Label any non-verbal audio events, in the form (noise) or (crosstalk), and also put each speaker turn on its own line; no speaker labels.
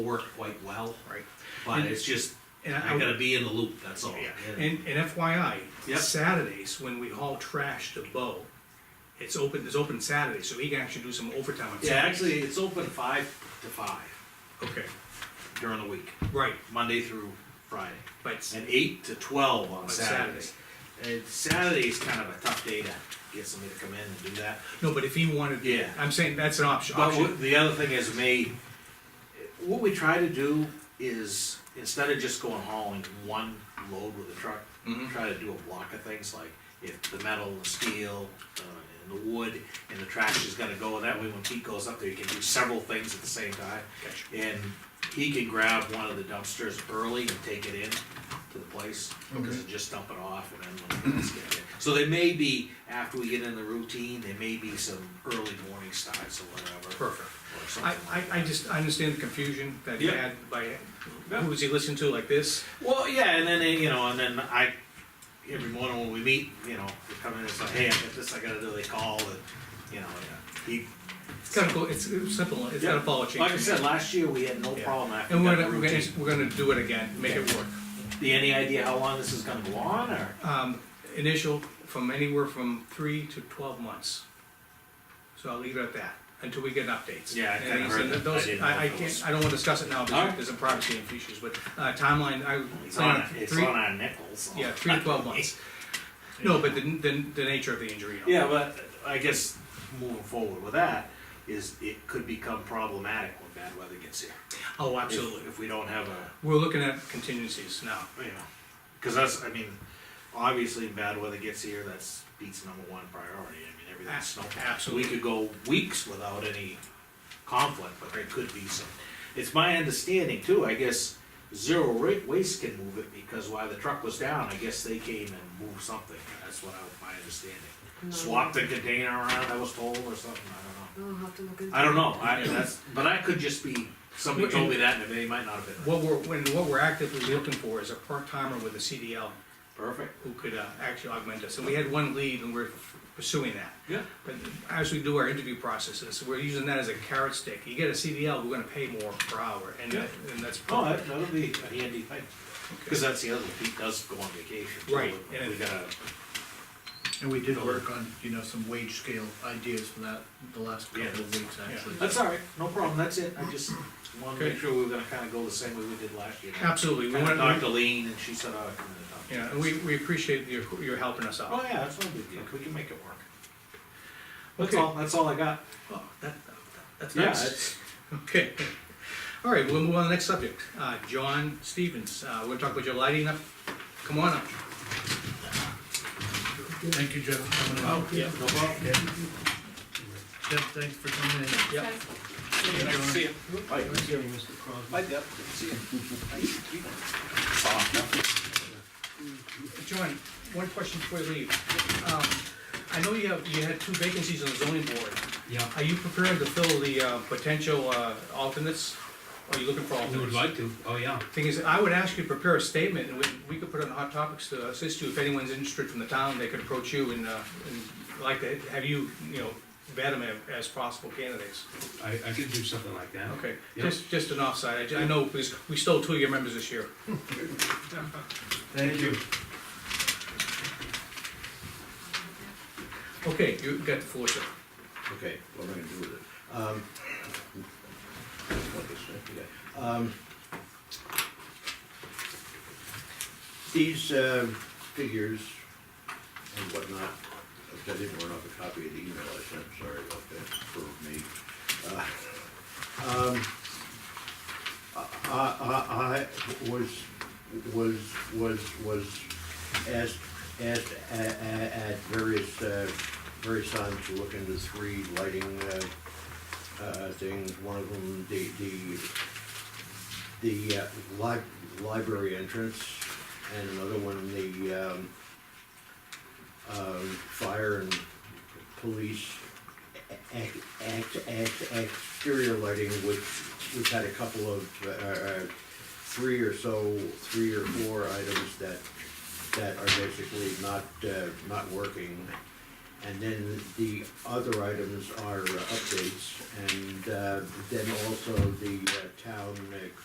worked quite well,
right?
but
And-
it's just,
and I-
I gotta be in the loop, that's all.
Yeah,
Yeah.
and, and FYI,
Oh, Yep.
Saturdays, when we haul trash to Bo, it's open, it's open Saturday, so he can actually do some overtime on
Yeah,
Saturday.
actually, it's open five to five
Okay,
during the week,
right,
Monday through Friday,
but,
and eight to twelve on
On
Saturdays. And Saturday's kind of a tough day to get somebody to come in and do that.
no, but if he wanted,
Yeah.
I'm saying that's an option,
But
option,
what- the other thing is, May, what we try to do is, instead of just going hauling one load with a truck, try to do a block of things, like if the metal, the steel, uh, and the wood, and the trash is gonna go, that way when Pete goes up there, he can do several things at the same time.
Gotcha.
And he can grab one of the dumpsters early and take it in to the place, because it's just dump it off and then when the guys get there. So there may be, after we get in the routine, there may be some early morning starts or whatever.
perfect.
Or
I,
something
I,
like
I
that.
just, I understand the confusion that he
Yeah.
had by,
Yeah.
who was he listening to like this?
Well, yeah, and then, you know, and then I, every morning when we meet, you know, we come in and say, hey, I got this, I gotta do, they call and, you know, yeah. he.
It's kind of cool, it's it's simple, it's gotta follow a change.
Like I said, last year, we had no
Yeah.
problem after
And
we
we're
got the
gonna, we're gonna,
routine.
we're gonna do it again, make it
Yeah.
work.
Do you any idea how long this is gonna go on, or?
Um, initial from anywhere from three to twelve months. So I'll leave it at that, until we get updates.
Yeah, I
And
kinda
he
heard
said
that.
those-
I didn't know
I, I
if it was-
can't, I don't wanna discuss it now, because
Alright.
there's some privacy issues, but, uh, timeline, I.
It's on, it's on our nickels. so.
Yeah, three to twelve months. No, but the, the, the nature of the injury. and all.
Yeah, but I guess moving forward with that is it could become problematic when bad weather gets here.
Oh,
If-
absolutely.
If we don't have a,
We're looking at contingencies now.
you know, cause that's, I mean, obviously when bad weather gets here, that's beats number one priority. I mean, everything's snow.
absolutely.
We could go weeks without any conflict, but there could be some. It's my understanding too, I guess, Zero Ra- Waste can move it because while the truck was down, I guess they came and moved something. That's what I, my understanding.
No.
Swapped the container around, I was told, or something, I
I'll have to look
don't
into.
know. I don't know, I,
Yeah.
that's, but I could just be, somebody told me that and they might not have been.
What we're, when, what we're actively looking for is a part-timer with a CDL
Perfect.
who could, uh, actually augment us. And we had one lead and we're pursuing that.
Yeah.
But as we do our interview processes, we're using that as a carrot stick. You get a CDL, we're gonna pay more per hour, and,
Yeah.
and that's.
Oh, that, that'll be a handy thing, cause that's the other, thing. Pete does go on vacation. so
Right,
we- We
and-
gotta,
And we did work on, you know, some wage scale ideas for that the last couple of weeks, actually.
that's all right, no problem, that's it, I just wanted to make
Okay.
sure we were gonna kinda go the same way we did last year.
Absolutely. We
Kinda talked
want,
to
Mm-hmm.
Lean and she said, oh, I'm gonna talk to
yeah,
you."
and we, we appreciate your, your helping us
Oh,
out.
yeah, that's no big deal, we can make it work. That's
Okay.
all, that's all I got.
Oh, that, that's
Yeah,
nice.
it's,
Okay. All right, we'll move on to the next subject. Uh, John Stevens, uh, we're talking about your lighting up. Come on up.
Thank you, Jeff, for coming
oh,
in.
yeah, no problem.
Yeah. Jeff, thanks for coming in.
Yep.
Nice to see
you. Hi. Hi, Deb. See (laughs) you.
Oh,
John, one question before you leave. Um, I know you have, you had two vacancies on the zoning board.
Yeah,
Are you prepared to fill the uh, potential uh, alternates? Or Are you looking for
we would like
alternates?
to, oh yeah.
Thing is, I would ask you to prepare a statement, and we, we could put it on Hot Topics to assist you. If anyone's interested from the town, they could approach you and, uh, and like to have you, you know, vet them as possible candidates.
I, I could do something like that.
Okay,
Yeah.
just, just an offside, I ju- I know, because we stole two of your members this year.
Thank you.
Okay, you got the floor, sir.
Okay, what am I gonna do with it? Um, what this is, yeah. Um, These uh, figures and whatnot, if I didn't run off a copy of the email I sent, sorry about that for me. Uh, um, I, I- I was, was, was, was asked, asked a- a- at various, uh, various times to look into three lighting, uh, uh, things. One of them, the, the, the uh, li- library entrance, and another one, the, um, um, fire and police ex- ex- ex- exterior lighting, which we've had a couple of, uh, uh, three or so, three or four items that, that are basically not, uh, not working. And then the other items are uh, updates, and uh, then also the uh, town uh,